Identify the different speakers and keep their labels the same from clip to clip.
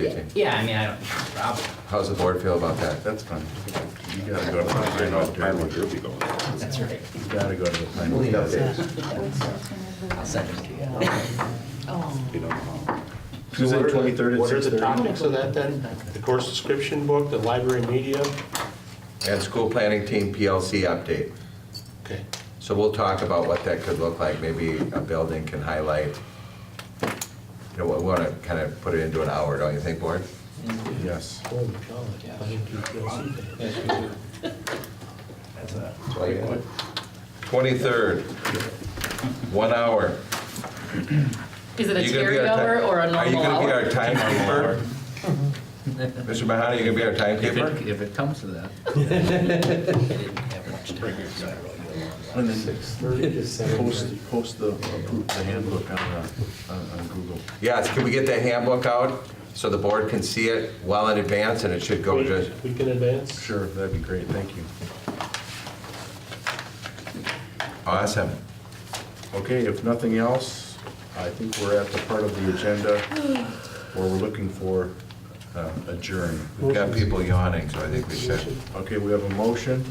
Speaker 1: Fifteen.
Speaker 2: Yeah, I mean, I don't have a problem.
Speaker 1: How's the board feel about that?
Speaker 3: That's fine. You gotta go to the planning board.
Speaker 4: will be going.
Speaker 2: That's right.
Speaker 3: You gotta go to the planning
Speaker 1: We'll
Speaker 3: board.
Speaker 1: update.
Speaker 2: I'll send it to you.
Speaker 4: You don't know how.
Speaker 5: So
Speaker 3: Tuesday,
Speaker 5: what are the-
Speaker 3: twenty-third at
Speaker 5: What are
Speaker 3: six
Speaker 5: the
Speaker 3: thirty.
Speaker 5: topics of that then? The course description book, the library media?
Speaker 1: And school planning team PLC update.
Speaker 5: Okay.
Speaker 1: So we'll talk about what that could look like, maybe a building can highlight, you know, we wanna kind of put it into an hour, don't you think, board?
Speaker 3: Yes.
Speaker 1: Twenty-third, one hour.
Speaker 6: Is it a
Speaker 1: You gonna be our ti-
Speaker 6: carryover or a
Speaker 1: Are you
Speaker 6: normal
Speaker 1: gonna be
Speaker 6: hour?
Speaker 1: our timekeeper? Mr. Mahoney, you gonna be our
Speaker 2: If it,
Speaker 1: timekeeper?
Speaker 2: if it comes to that. I didn't have much time, so I really don't know.
Speaker 3: And then post, post the, the handbook on, uh, on on Google.
Speaker 1: Yes, can we get the handbook out so the board can see it well in advance and it should go just,
Speaker 5: We can advance?
Speaker 3: Sure, that'd be great, thank you.
Speaker 1: awesome.
Speaker 3: Okay, if nothing else, I think we're at the part of the agenda where we're looking for uh, adjourn.
Speaker 1: We've got people yawning, so I think we should.
Speaker 3: Okay, we have a motion,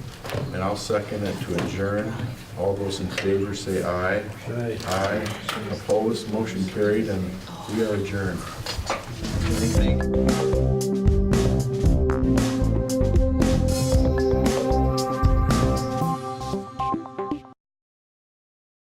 Speaker 3: and I'll second it to adjourn. All those in favor say aye. Aye. Aye. Opposed, motion carried, and we are adjourned.
Speaker 1: Thank you.